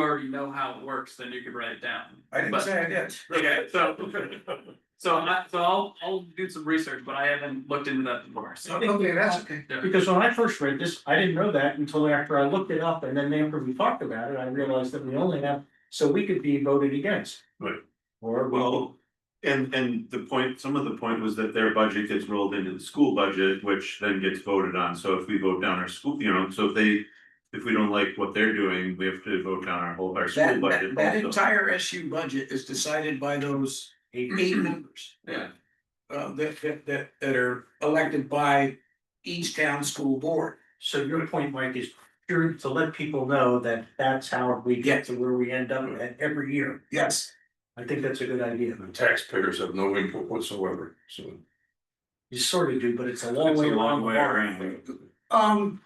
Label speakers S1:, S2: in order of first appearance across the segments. S1: already know how it works, then you could write it down.
S2: I didn't
S1: But-
S2: say I did.
S1: Okay, so, so I, so I'll, I'll do some research, but I haven't looked into that before, so.
S2: Okay, that's okay.
S1: yeah.
S3: Because when I first read this, I didn't know that until after I looked it up and then after we talked about it, I realized that we only have, so we could be voted against.
S4: Right.
S3: Or well,
S4: Well, and and the point, some of the point was that their budget gets rolled into the school budget, which then gets voted on, so if we vote down our school, you know, so if they. If we don't like what they're doing, we have to vote down our whole, our school
S2: That,
S4: budget.
S2: that, that
S4: also.
S2: entire SU budget is decided by those eight members.
S1: Yeah.
S2: Uh, that, that, that, that are elected by each town school board.
S3: so your point, Mike, is pure to let people know that that's how we get to where we end up at every year.
S2: Yes.
S3: I think that's a good idea.
S5: The taxpayers have no input whatsoever, so.
S3: You sort of do, but it's a long
S4: It's a
S3: way
S4: long
S3: around. the
S4: way
S3: bar.
S4: around.
S2: Um.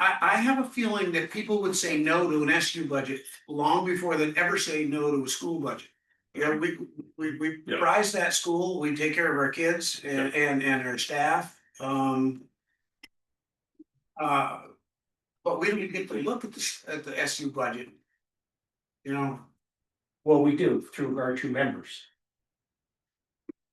S2: I, I have a feeling that people would say no to an SU budget long before they'd ever say no to a school budget. You know, we, we, we
S4: Yeah.
S2: prize that school, we take care of our kids and, and, and our staff, um. Uh, but we don't get to look at the, s- at the SU budget. You know,
S3: Well, we do through our two members.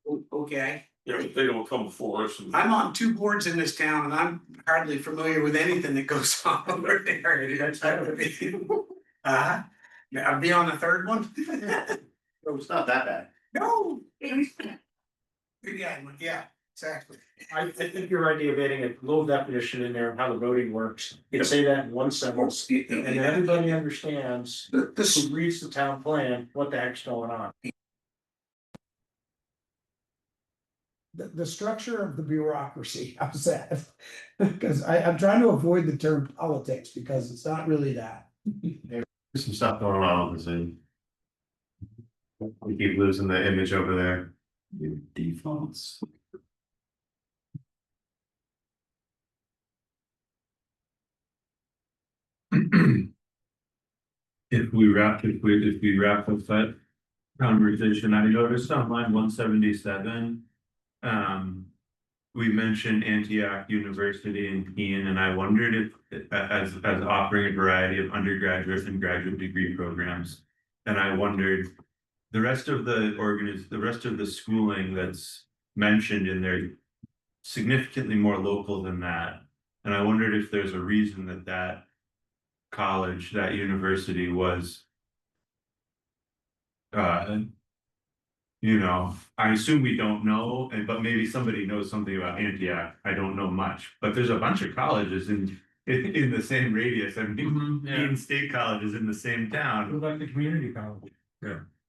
S2: o- okay,
S5: Yeah, but they don't come for us and.
S2: I'm on two boards in this town and I'm hardly familiar with anything that goes on over there.
S3: That's how it is.
S2: Uh, I'll be on the third one.
S6: It's not that bad.
S2: No. Yeah, yeah, exactly.
S3: I, I think your idea of adding a little definition in there of how the voting works, you can say that in one sentence. And then everybody understands
S2: This,
S3: who reads the town plan, what the heck's going on.
S7: the, the structure of the bureaucracy, I'm sad. Because I, I'm trying to avoid the term politics because it's not really that.
S8: There's some stuff going on with Zoom. We keep losing the image over there. Your defaults.
S4: If we wrap, if we, if we wrap up that conversation, I noticed on line one seventy-seven. Um, we mentioned Antioch University and Keene, and I wondered if, as, as offering a variety of undergraduate and graduate degree programs. And I wondered, the rest of the organis, the rest of the schooling that's mentioned in there significantly more local than that. And I wondered if there's a reason that that college, that university was. Uh. You know, I assume we don't know, and but maybe somebody knows something about Antioch, I don't know much, but there's a bunch of colleges in in in the same radius, I mean.
S1: Mhm, yeah.
S4: Keene State College is in the same town,
S3: about the community college?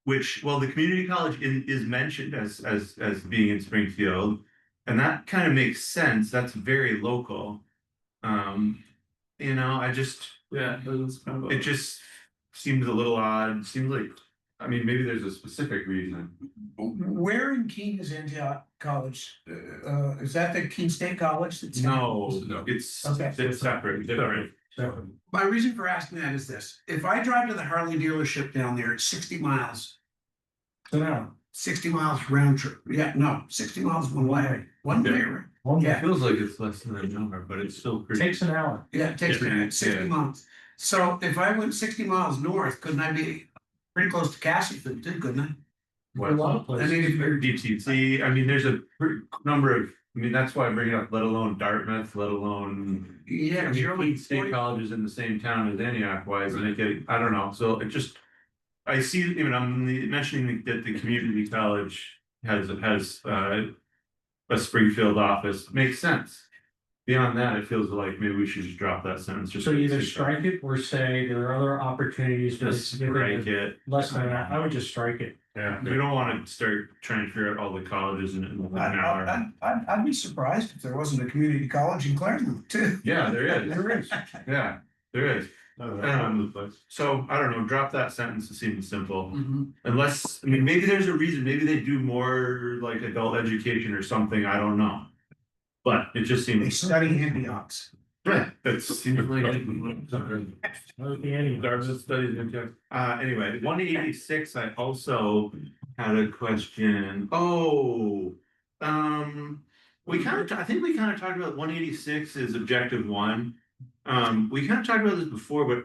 S4: which, well, the community college in is mentioned as as as being in Springfield. And that kind of makes sense, that's very local. Um, you know, I just.
S1: Yeah, it was kind of a-
S4: It just seems a little odd, seems like, I mean, maybe there's a specific reason.
S2: where in Keene is Antioch College?
S5: Uh,
S2: Uh, is that the Keene State College? that's-
S4: No, it's,
S2: Okay.
S4: it's separate, different.
S2: My reason for asking that is this, if I drive to the Harley dealership down there, it's sixty miles. Sixty miles round trip, yeah, no, sixty miles one way, one way,
S4: Yeah.
S2: right?
S4: It
S2: Yeah.
S4: feels like it's less than an hour, but it's still pretty.
S3: Takes an hour.
S2: Yeah, it takes me
S4: Yeah,
S2: sixty
S4: yeah.
S2: miles. So if I went sixty miles north, couldn't I be pretty close to Castleton, too, couldn't I?
S4: What?
S3: A lot of
S4: I
S3: places.
S4: mean, if you're DTC, I mean, there's a pretty number of, I mean, that's why I bring it up, let alone Dartmouth, let alone. I
S2: Yeah,
S4: mean,
S2: you're only
S4: Keene State
S2: 40
S4: colleges in the same town as Antioch, why isn't it getting, I don't know, so it just. I see, even I'm the- mentioning that the community college has, has, uh. A Springfield office, makes sense. Beyond that, it feels like maybe we should just drop that sentence. just
S3: So
S4: for the
S3: either
S4: sake of-
S3: strike it or say there are other opportunities. to
S4: Just strike it,
S3: Less than that, I would just strike it.
S4: yeah, we don't wanna start trying to figure out all the colleges in an hour.
S2: I'd, I'd be surprised if there wasn't a community college in Claremont too.
S4: Yeah, there is, there is, yeah, there is, Um, so I don't know, drop that sentence, it seems simple.
S1: Mhm.
S4: Unless, I mean, maybe there's a reason, maybe they do more like adult education or something, I don't know. But it just
S2: They
S4: seems,
S2: study ambiance.
S4: that seems like.
S3: Okay, anyway.
S4: Dartmouth studies Antioch. Uh, anyway, one eighty-six, I also had a question, oh, um. We kind of, I think we kind of talked about one eighty-six is objective one. Um, we kind of talked about this before, but